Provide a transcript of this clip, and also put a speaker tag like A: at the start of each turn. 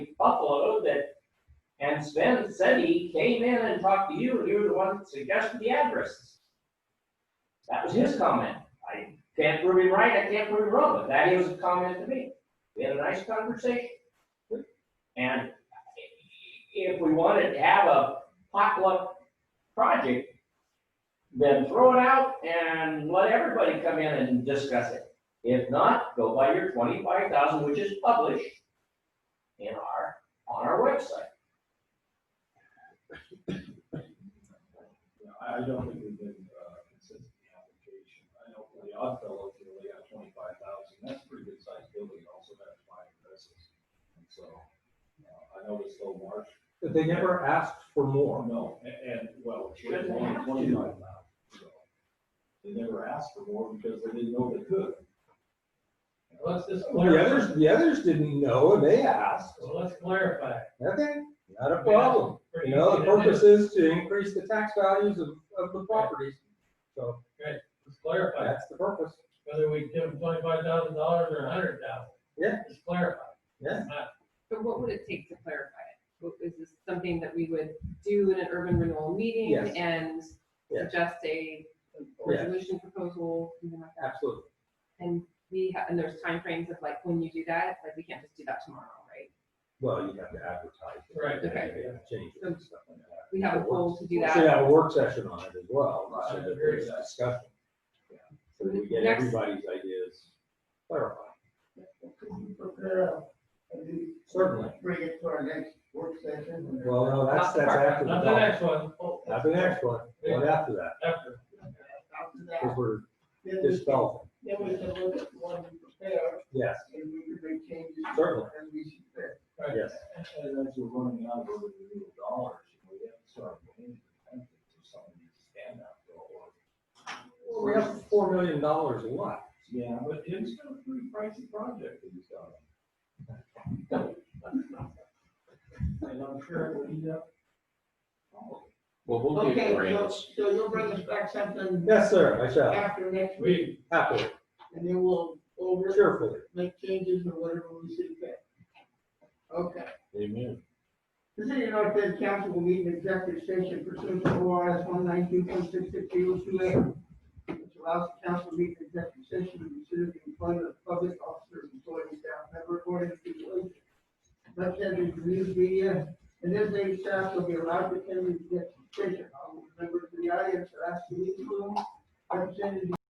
A: Buffalo that, and Sven said he came in and talked to you, and you were the one that suggested the addresses. That was his comment. I can't prove him right, I can't prove him wrong, but that was a comment to me. We had a nice conversation. And if we wanted to have a potluck project, then throw it out and let everybody come in and discuss it. If not, go by your twenty-five thousand, which is published in our, on our website.
B: Yeah, I I don't think we've been uh, consistent in application. I know for the odd fellows, you only got twenty-five thousand, that's a pretty good sized building, also has five addresses. And so, uh, I know this little marsh,
C: But they never asked for
B: Oh,
C: more.
B: no, and, and, well, it's
A: Shouldn't
B: only
A: have to.
B: twenty-five thousand, so. They never asked for more because they didn't know they could.
D: Let's just
C: Well, the
D: clarify.
C: others, the others didn't know and they asked.
D: So let's clarify.
C: Okay, not a problem. You know, the purpose is to increase the tax values of, of the properties. So
D: Let's clarify,
C: that's the purpose.
D: whether we give them twenty-five thousand dollars or a hundred thousand.
C: Yeah.
D: Just clarify.
C: Yeah.
D: Not-
E: But what would it take to clarify it? What- Is this something that we would do in an urban renewal meeting
C: Yes.
E: and
C: Yes.
E: suggest a resolution proposal? something like that?
C: Absolutely.
E: And we, ha- and there's timeframes of like when you do that, like we can't just do that tomorrow, right?
C: Well, you have to advertise. it.
D: Right.
E: Okay.
C: Yeah, Change it and stuff like that.
E: We have a goal to
C: We
E: do that.
C: should have a work session on it as well,
B: Right,
C: so that
D: very
C: there's
B: good.
C: discussion.
B: Yeah.
C: So that we get
E: Next.
C: everybody's ideas clarified.
F: Could you prepare a, a new-
C: Certainly.
F: Bring it to our next work session.
C: Well, no, that's,
E: Not the
C: that's
E: part-
C: after the,
D: Not the
C: vote.
D: next one,
C: not the next one,
D: Yeah.
C: one after that,
D: after.
F: After
C: because
F: that,
C: we're
F: then we, can-
C: dispelling.
F: then we can look at the one we prepared
C: Yes,
F: and we can make changes.
C: Certainly.
F: As we see fit.
D: Right.
C: yes.
B: And as we're running out of revenue dollars, we have to start paying attention to some of these standout goals.
C: Well, we have four million dollars left.
B: Yeah, but it's been a pretty pricey project that he's done. And I'm sure it will be up.
G: Well, we'll give
F: Okay,
G: you
F: so,
G: grants.
F: so you'll bring us back something
C: Yes, sir, I shall,
F: after next week
D: We,
C: happily,
F: and then we'll over,
C: cheerfully.
F: make changes or whatever we see fit. Okay.
G: Amen.
F: The City of North Bend Council will meet in executive session pursuant to oh O R S one nineteen point six six zero two A. Which allows the council to meet in executive session